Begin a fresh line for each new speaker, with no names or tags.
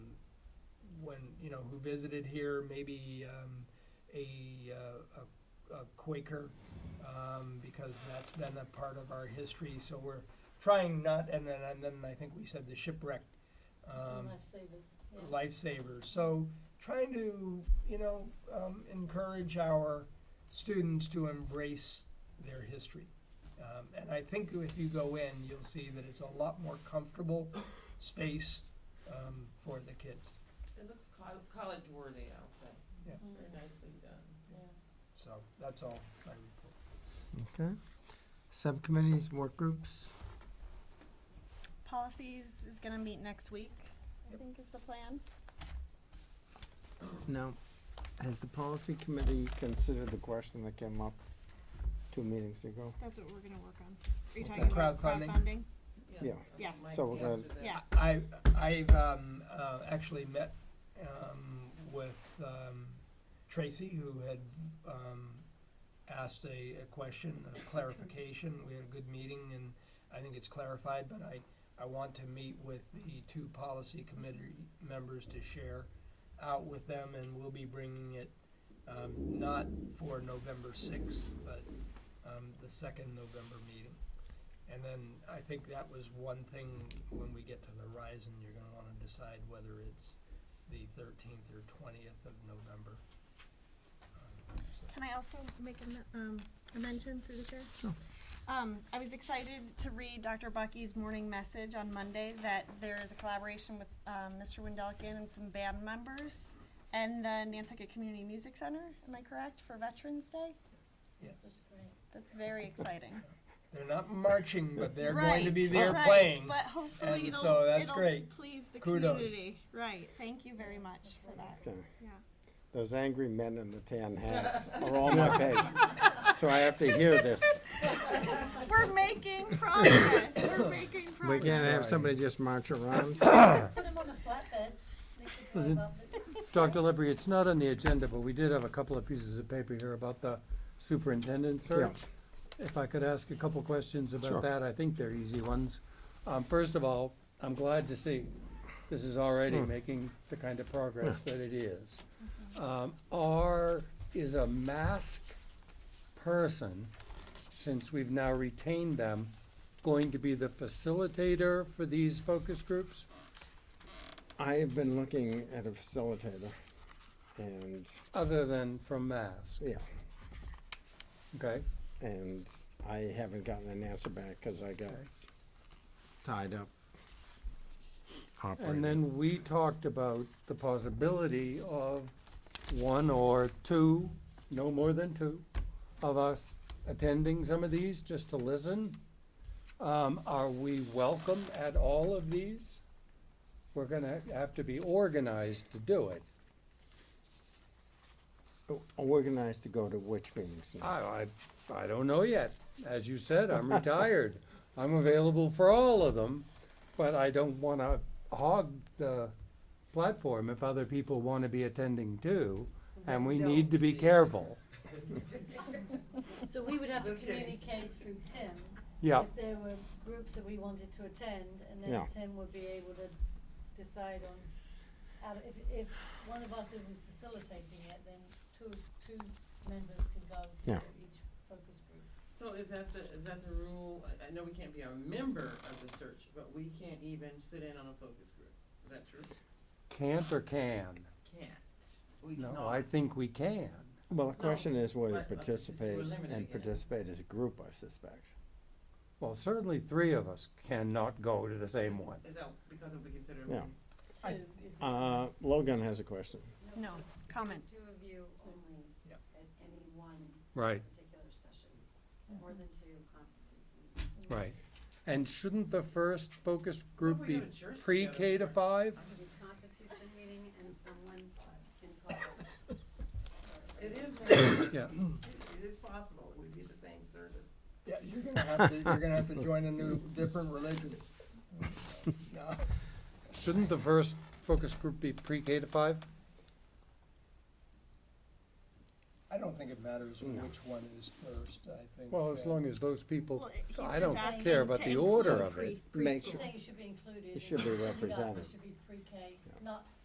and, you know, who visited here, maybe um, a, uh, a a Quaker, um, because that's been a part of our history, so we're trying not, and then, and then I think we said the shipwreck.
Some
um,
lifesavers, yeah.
lifesavers. So trying to, you know, um, encourage our students to embrace their history. Um, and I think if you go in, you'll see that it's a lot more comfortable space um, for the kids.
It looks col- college worthy, I'll say.
Mm,
Very nicely done.
yeah.
So that's all my report.
Okay. Subcommittees, work groups.
Policies is gonna meet next week, I
Yep.
think is the plan.
Now, has the policy committee considered the question that came up two meetings ago?
That's what we're gonna work on. Are you
Okay.
talking about
Crowdfunding.
crowdfunding?
Yeah.
Yeah.
Mike
So we're gonna-
answered that.
Yeah.
I, I've um, uh, actually met um, with um, Tracy, who had um, asked a, a question, a clarification. We had a good meeting, and I think it's clarified, but I, I want to meet with the two policy committee members to share out with them, and we'll be bringing it um, not for November 6th, but um, the second November meeting. And then I think that was one thing, when we get to the Horizon, you're gonna wanna decide whether it's the thirteenth or twentieth of November. Um, so-
Can I also make a, men- um, a mention through the chair? Sure. Um, I was excited to read Dr. Bucky's morning message on Monday that there is a collaboration with, um, Mr. Wendelkin and some band members and the Nantucket Community Music Center, am I correct, for Veterans Day?
That's
Yes,
great.
That's very exciting.
they're not marching, but they're going to be
Right,
there
right,
playing.
But hopefully
and
it'll,
so that's
it'll
great.
please the
Kudos.
community. Right, thank you very much for that,
Okay.
yeah.
Those angry men in the tan hats are all my page, so I have to hear this.
We're making progress, we're making
We
progress.
can't have somebody just march around.
Put them on a flatbed. They could
Was it-
drive up it.
Dr. Libby, it's not on the agenda, but we did have a couple of pieces of paper here about the superintendent search. If I could ask a couple questions
Sure.
about that, I think they're easy ones. Um, first of all, I'm glad to see this is already
Hmm.
making the kind of progress that it is. Um, are, is a mask person, since we've now retained them, going to be the facilitator for these focus groups?
I have been looking at a facilitator, and,
Other than from mask,
yeah,
okay?
and I haven't gotten an answer back, because I got
Okay.
tied up.
And
operating.
then we talked about the possibility of one or two, no more than two, of us attending some of these just to listen. Um, are we welcome at all of these? We're gonna have to be organized to do it.
O- Organized to go to which meetings
Uh,
now?
I, I, I don't know yet. As you said, I'm retired. I'm available for all of them, but I don't wanna hog the platform if other people wanna be attending too. And we need to be
Don't, Steve.
careful.
So we would have to
Just kidding.
communicate through Tim.
Yeah,
If there were groups that we wanted to attend, and
Yeah.
then Tim would be able to decide on, out of- if, if one of us isn't facilitating it, then two, two members can go to
Yeah.
each focus group.
So is that the, is that the rule? I, I know we can't be a member of the search, but we can't even sit in on a focus group. Is that true?
can't or can?
Can't. We
No,
cannot.
I think we can.
Well, the
No,
question is whether
but- but it's-
participate
we're limited
and
again.
participate as a group, I suspect.
Well, certainly three of us cannot go to the same one.
Is that because of we consider?
Yeah.
I-
Two is the-
Uh, Logan has a question.
No, comment.
Two of you only
Yep.
at any one
Right,
particular session.
Mhm.
More than two constitutes an
right. And shouldn't the first focus group
we
be
go to church
pre-K to
together.
five?
It constitutes a meeting and someone can call it.
It is, possible.
Yeah.
it is possible. It would be the same service.
Yeah, you're gonna have to, you're gonna have to join a new, different religion. No.
Shouldn't the first focus group be pre-K to five?
I don't think it matters
No.
which one is first, I think.
Well, as
uh,
long as those people,
Well, he's
I
just
don't
asking
care about
to
the order
include
of it.
pre-
Make
preschool.
sure-
Saying it should be included.
It should be
and you guys
represented.
should be pre-K,
Yeah.
not